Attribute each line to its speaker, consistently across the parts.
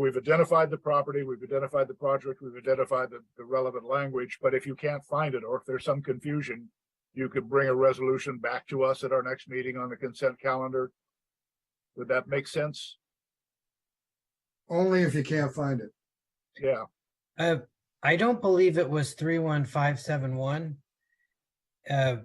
Speaker 1: We've identified the property, we've identified the project, we've identified the, the relevant language, but if you can't find it, or if there's some confusion, you could bring a resolution back to us at our next meeting on the consent calendar. Would that make sense?
Speaker 2: Only if you can't find it.
Speaker 1: Yeah,
Speaker 3: Uh, I don't believe it was three one five seven one. Uh.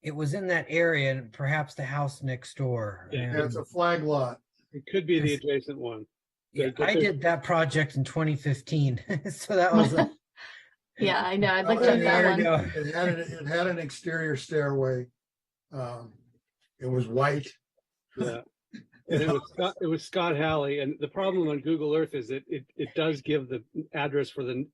Speaker 3: It was in that area and perhaps the house next door.
Speaker 4: Yeah.
Speaker 2: Yeah, It's
Speaker 3: and-
Speaker 2: a flag lot.
Speaker 4: It could be the
Speaker 3: Yes.
Speaker 4: adjacent one.
Speaker 3: Yeah,
Speaker 4: but
Speaker 3: I
Speaker 4: there's-
Speaker 3: did that project in twenty fifteen, so that was. a-
Speaker 5: Yeah, I know. I'd like
Speaker 2: Oh,
Speaker 5: to have that
Speaker 2: yeah,
Speaker 3: There we
Speaker 5: one.
Speaker 3: go.
Speaker 2: It had, an- it had an exterior stairway. Um, It was white.
Speaker 4: Yeah. And it was Scott, it was Scott Halley. And the problem on Google Earth is it, it, it does give the address for the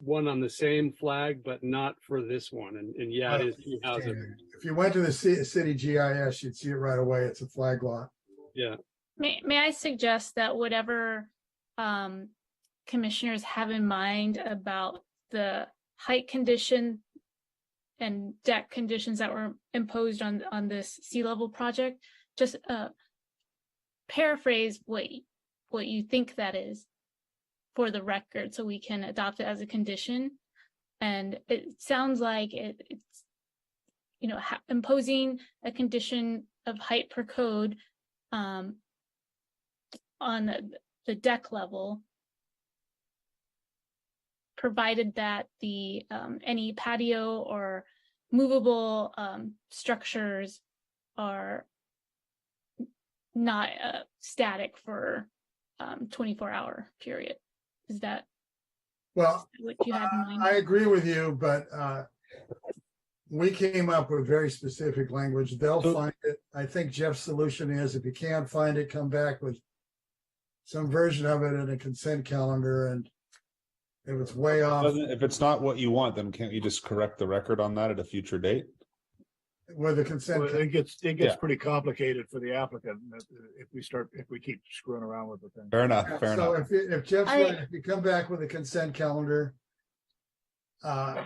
Speaker 4: one on the same flag, but not for this one. And, and
Speaker 3: Oh,
Speaker 4: yeah, it is two houses.
Speaker 2: If you went to the ci- city GIS, you'd see it right away. It's a flag lot.
Speaker 4: Yeah.
Speaker 6: May, may I suggest that whatever um, commissioners have in mind about the height condition and deck conditions that were imposed on, on this sea level project, just uh, paraphrase what, y- what you think that is for the record, so we can adopt it as a condition. And it sounds like it, it's, you know, ha- imposing a condition of height per code um, on the, the deck level. Provided that the, um, any patio or movable, um, structures are not, uh, static for, um, twenty-four hour period. Is that
Speaker 2: Well,
Speaker 6: what you had in mind?
Speaker 2: I agree with you, but uh, we came up with very specific language. They'll
Speaker 4: So-
Speaker 2: find it. I think Jeff's solution is if you can't find it, come back with some version of it in a consent calendar and if it's way off
Speaker 7: Doesn't- If it's not what you want, then can't you just correct the record on that at a future date?
Speaker 2: with a consent.
Speaker 1: Well,
Speaker 2: cal-
Speaker 1: it gets, it gets
Speaker 7: Yeah.
Speaker 1: pretty complicated for the applicant if- if we start, if we keep screwing around with the thing.
Speaker 7: Fair enough, fair
Speaker 2: So if,
Speaker 7: enough.
Speaker 2: you- if Jeff's
Speaker 5: I-
Speaker 2: right, if you come back with a consent calendar, uh,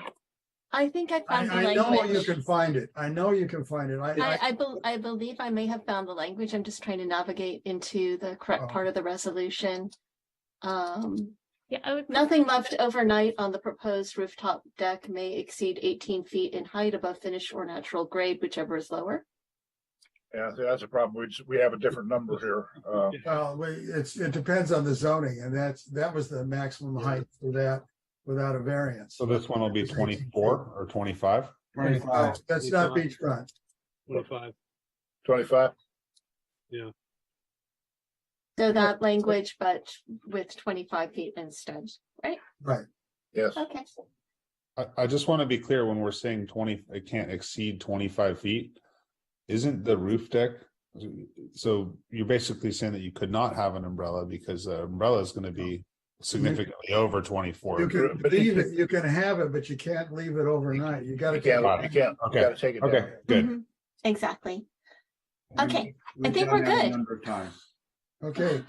Speaker 5: I think I
Speaker 2: I,
Speaker 5: found
Speaker 2: I
Speaker 5: the
Speaker 2: know you
Speaker 5: language.
Speaker 2: can find it. I know you can find it. I,
Speaker 5: I,
Speaker 2: I,
Speaker 5: I, bel I believe I may have found the language. I'm just trying to navigate into the
Speaker 2: Oh.
Speaker 5: correct part of the resolution. Um,
Speaker 6: Yeah, I would.
Speaker 5: nothing left overnight on the proposed rooftop deck may exceed eighteen feet in height above finished or natural grade, whichever is lower.
Speaker 1: Yeah, so that's a problem. We, just- we have a different number here. Uh,
Speaker 2: well, we- it's, it depends on the zoning and that's, that was the maximum height for that without a variance.
Speaker 7: So this one will be twenty-four or twenty-five?
Speaker 2: Uh, That's not beachfront.
Speaker 4: Twenty-five.
Speaker 1: Twenty-five,
Speaker 5: So that language, but with twenty-five feet instead, right?
Speaker 1: yes.
Speaker 5: Okay.
Speaker 7: I, I just want to be clear, when we're saying twenty, it can't exceed twenty-five feet, isn't the roof deck? So you're basically saying that you could not have an umbrella because the umbrella is going to be significantly over
Speaker 2: You
Speaker 7: twenty-four.
Speaker 2: can
Speaker 1: But-
Speaker 2: leave it, you can have it, but you can't leave it overnight. You gotta.
Speaker 1: You can't, you
Speaker 7: Okay.
Speaker 1: can't, you gotta take it down.
Speaker 7: Okay, good.
Speaker 5: Mhm. Exactly. Okay, I think we're good.
Speaker 2: Okay,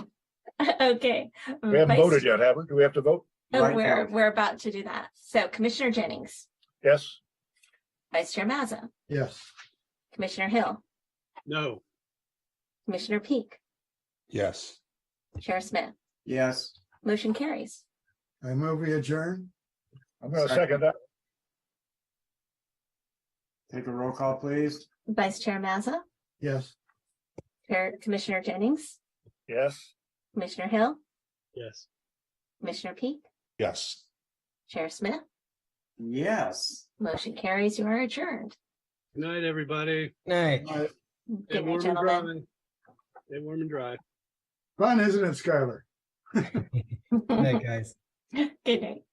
Speaker 5: Okay.
Speaker 1: We haven't
Speaker 5: Vice-
Speaker 1: voted yet, have we? Do we have to vote?
Speaker 5: Oh, we're, we're about to do that. So Commissioner Jennings,
Speaker 1: Yes?
Speaker 5: Vice Chair Mazza,
Speaker 2: yes.
Speaker 5: Commissioner Hill,
Speaker 4: No.
Speaker 5: Commissioner Peak,
Speaker 2: Mm-hmm.
Speaker 7: Yes.
Speaker 5: Chair Smith.
Speaker 8: Yes.
Speaker 5: Motion carries.
Speaker 2: I move we adjourn.
Speaker 1: I'm gonna second that.
Speaker 8: Take a roll call, please.
Speaker 5: Vice Chair Mazza,
Speaker 2: Yes.
Speaker 5: Chair Commissioner Jennings,
Speaker 1: Yes?
Speaker 5: Commissioner Hill,
Speaker 4: Yes.
Speaker 5: Commissioner Peak,
Speaker 7: Yes.
Speaker 5: Chair Smith.
Speaker 8: Yes.
Speaker 5: Motion carries. You are adjourned.
Speaker 4: Good night, everybody.
Speaker 3: Night.
Speaker 2: Uh,
Speaker 4: Stay
Speaker 5: Good night,
Speaker 4: warm and dry.
Speaker 5: gentlemen.
Speaker 4: Stay warm and dry.
Speaker 2: Fun, isn't it, Skylar?
Speaker 3: Night, guys.
Speaker 5: Good night.